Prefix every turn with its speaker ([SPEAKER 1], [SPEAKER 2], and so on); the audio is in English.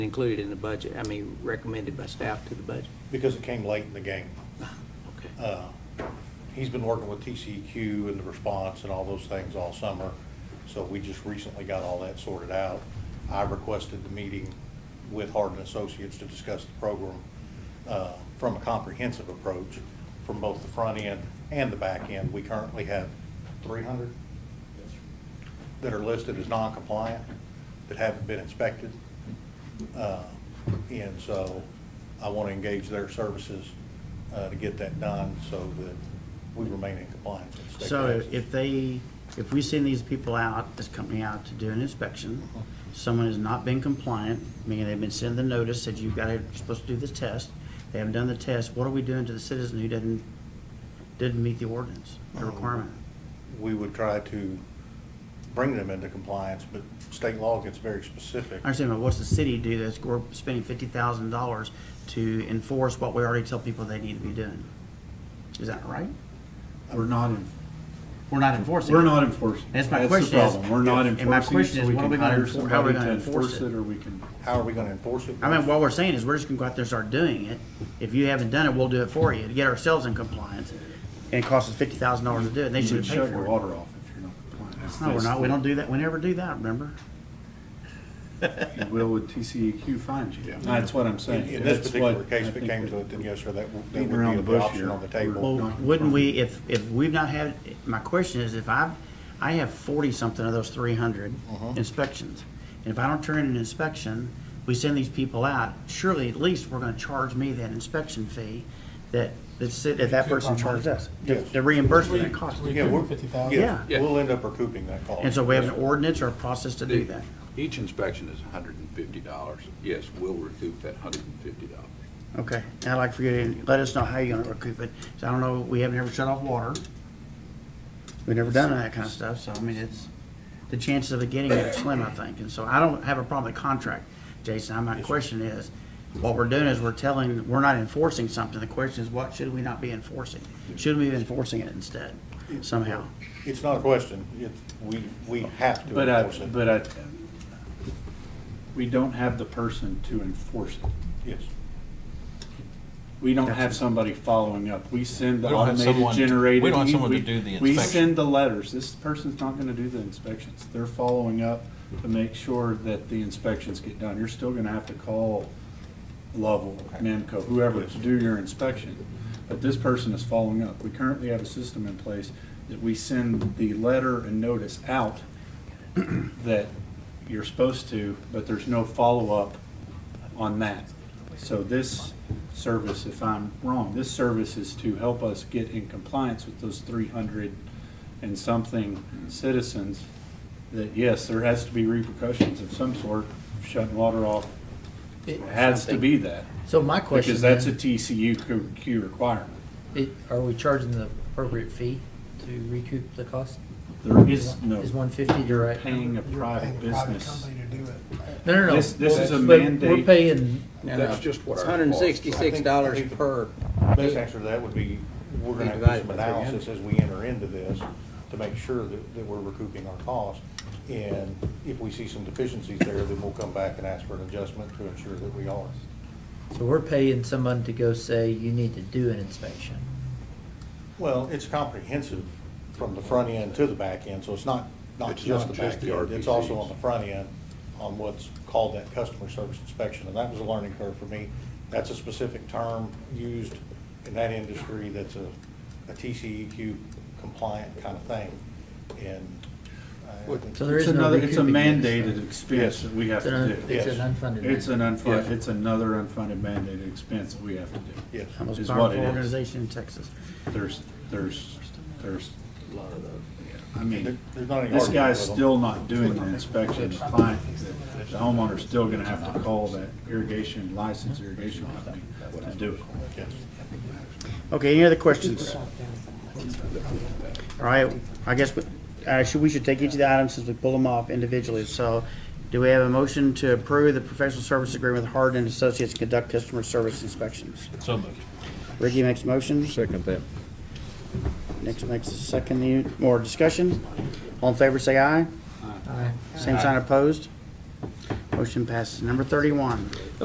[SPEAKER 1] included in the budget, I mean, recommended by staff to the budget?
[SPEAKER 2] because it came late in the game.
[SPEAKER 1] Okay.
[SPEAKER 2] Uh, He's been working with TCEQ and the response and all those things all summer, so we just recently got all that sorted out. I requested the meeting with Hardin Associates to discuss the program uh, from a comprehensive approach from both the front end and the back end. We currently have 300 that are listed as non-compliant, that haven't been inspected. Uh, And so I want to engage their services uh, to get that done so that we remain in compliance with state
[SPEAKER 3] So
[SPEAKER 2] taxes.
[SPEAKER 3] if they, if we send these people out, this company out to do an inspection, someone has not been compliant, meaning they've been sent the notice, said you've got to, you're supposed to do this test, they haven't done the test, what are we doing to the citizen who didn't, didn't meet the ordinance, the requirement?
[SPEAKER 2] We would try to bring them into compliance, but state law gets very specific.
[SPEAKER 3] I understand, but what's the city do that's, we're spending fifty thousand dollars to enforce what we already tell people they need to be doing? Is that right?
[SPEAKER 4] We're not, en-
[SPEAKER 3] We're not enforcing. it.
[SPEAKER 4] we're not enforcing.
[SPEAKER 3] That's my
[SPEAKER 4] the
[SPEAKER 3] question is-
[SPEAKER 4] problem. We're not
[SPEAKER 3] and my
[SPEAKER 4] enforcing it,
[SPEAKER 3] question
[SPEAKER 4] so
[SPEAKER 3] is,
[SPEAKER 4] we
[SPEAKER 3] what are
[SPEAKER 4] can
[SPEAKER 3] we gonna
[SPEAKER 4] hire
[SPEAKER 3] enfor- how are we
[SPEAKER 4] somebody to
[SPEAKER 3] gonna enforce
[SPEAKER 4] enforce
[SPEAKER 3] it?
[SPEAKER 4] it, or we can,
[SPEAKER 2] How are we going to enforce it?
[SPEAKER 3] I mean, what we're saying is we're just gonna go out there and start doing it. If you haven't done it, we'll do it for you to get ourselves in compliance. And it costs us fifty thousand dollars to do it, and they
[SPEAKER 4] you
[SPEAKER 3] should
[SPEAKER 4] would
[SPEAKER 3] pay
[SPEAKER 4] shut your
[SPEAKER 3] for it.
[SPEAKER 4] water off if you're not compliant.
[SPEAKER 3] No, we're not, we don't do that, we never do that, remember?
[SPEAKER 4] You will with TCEQ find E you. That's what I'm saying.
[SPEAKER 2] In in this
[SPEAKER 4] That's
[SPEAKER 2] particular
[SPEAKER 4] what
[SPEAKER 2] case,
[SPEAKER 4] I
[SPEAKER 2] if it
[SPEAKER 4] think
[SPEAKER 2] came
[SPEAKER 4] that-
[SPEAKER 2] to it, then yes, sir, that w- that
[SPEAKER 4] beating
[SPEAKER 2] would
[SPEAKER 4] around the
[SPEAKER 2] be the
[SPEAKER 4] bush
[SPEAKER 2] option
[SPEAKER 4] here.
[SPEAKER 2] on the table.
[SPEAKER 3] Well, wouldn't we, if, if we've not had, my question is, if I've, I have forty-something of those three hundred inspections. And if I don't turn in an inspection, we send these people out, surely at least we're gonna charge me that inspection fee that, that's, it- that that person charged us. The
[SPEAKER 2] Yes.
[SPEAKER 3] the reimbursement that cost.
[SPEAKER 2] Yeah, we're-
[SPEAKER 3] Yeah.
[SPEAKER 2] Yeah, we'll end up recouping that cost.
[SPEAKER 3] And so we have an ordinance or a process to do that?
[SPEAKER 5] Each inspection is hundred and fifty dollars. Yes, we'll recoup that hundred and fifty dollars.
[SPEAKER 3] Okay, and I'd like for you to let us know how you're gonna recoup it. So I don't know, we haven't ever shut off water. We've never done that kind of stuff, so I mean, it's, the chances of it getting it are slim, I think. And so I don't have a problem with contract, Jason. My question is, what we're doing is we're telling, we're not enforcing something. The question is, what should we not be enforcing? Should we be enforcing it instead somehow?
[SPEAKER 2] It's not a question, it's, we, we have to
[SPEAKER 4] But I,
[SPEAKER 2] enforce it.
[SPEAKER 4] but I, we don't have the person to enforce it.
[SPEAKER 2] Yes.
[SPEAKER 4] We don't have somebody following up. We send the
[SPEAKER 6] We don't have
[SPEAKER 4] automated
[SPEAKER 6] someone-
[SPEAKER 4] generated. e-,
[SPEAKER 6] we don't have someone to
[SPEAKER 4] we-
[SPEAKER 6] do the
[SPEAKER 4] We
[SPEAKER 6] inspection.
[SPEAKER 4] send the letters. This person's not gonna do the inspections. They're following up to make sure that the inspections get done. You're still gonna have to call Lovell, Namco, whoever to do your inspection. But this person is following up. We currently have a system in place that we send the letter and notice out that you're supposed to, but there's no follow-up on that. So this service, if I'm wrong, this service is to help us get in compliance with those three hundred and something citizens that, yes, there has to be repercussions of some sort, shutting water off has to be that.
[SPEAKER 7] So my question
[SPEAKER 4] Because that's a
[SPEAKER 7] then,
[SPEAKER 4] TCU Q requirement.
[SPEAKER 7] it- are we charging the appropriate fee to recoup the cost?
[SPEAKER 4] There is no
[SPEAKER 7] Is one fifty the right?
[SPEAKER 4] paying a private business.
[SPEAKER 7] No, no, no.
[SPEAKER 4] This- this is a
[SPEAKER 7] But We're
[SPEAKER 4] mandate.
[SPEAKER 7] paying,
[SPEAKER 5] That's just what
[SPEAKER 1] It's
[SPEAKER 5] our.
[SPEAKER 1] hundred and sixty-six
[SPEAKER 2] I
[SPEAKER 1] dollars
[SPEAKER 2] think-
[SPEAKER 1] per.
[SPEAKER 2] Best answer to that would be, we're gonna have to do some analysis as we enter into this to make sure that, that we're recouping our costs. And if we see some deficiencies there, then we'll come back and ask for an adjustment to ensure that we are.
[SPEAKER 7] so we're paying someone to go say, you need to do an inspection.
[SPEAKER 2] Well, it's comprehensive from the front end to the back end, so it's not, not
[SPEAKER 5] It's
[SPEAKER 2] just the
[SPEAKER 5] not
[SPEAKER 2] back
[SPEAKER 5] just the
[SPEAKER 2] end. It's also
[SPEAKER 5] RPCs.
[SPEAKER 2] on the front end, on what's called that customer service inspection, and that was a learning curve for me. That's a specific term used in that industry that's a, a TCEQ compliant kind of thing, and. uh, I- I think-
[SPEAKER 7] So there
[SPEAKER 4] It's
[SPEAKER 7] is no
[SPEAKER 4] another, it's a
[SPEAKER 7] recouping this.
[SPEAKER 4] mandated expense that we have
[SPEAKER 7] It's
[SPEAKER 4] to
[SPEAKER 7] an,
[SPEAKER 4] do.
[SPEAKER 7] it's an
[SPEAKER 2] Yes.
[SPEAKER 7] unfunded.
[SPEAKER 4] It's an
[SPEAKER 7] mandate.
[SPEAKER 4] unfunded, it's another unfunded mandated expense that we have to do.
[SPEAKER 2] Yes.
[SPEAKER 3] The Most
[SPEAKER 4] Is what it
[SPEAKER 3] powerful
[SPEAKER 4] is.
[SPEAKER 3] organization in Texas.
[SPEAKER 4] There's, there's, there's,
[SPEAKER 5] A lot of those.
[SPEAKER 4] I
[SPEAKER 2] There-
[SPEAKER 4] mean,
[SPEAKER 2] There's not any.
[SPEAKER 4] this
[SPEAKER 2] argument
[SPEAKER 4] guy's
[SPEAKER 2] with them.
[SPEAKER 4] still not doing the inspection. The client, the- the homeowner's still gonna have to call that irrigation, licensed irrigation company to do it.
[SPEAKER 2] Yes.
[SPEAKER 3] Okay, any other questions? All right, I guess, we- uh, should, we should take each of the items since we pull them off individually. So do we have a motion to approve the professional service agreement with Hardin Associates to conduct customer service inspections?
[SPEAKER 6] So moved.
[SPEAKER 3] Ricky makes a motion. Second that. Nick makes a second. Any More discussion? All in favor, say aye.
[SPEAKER 7] Aye.
[SPEAKER 3] Same sign opposed? Motion passes. Number thirty-one.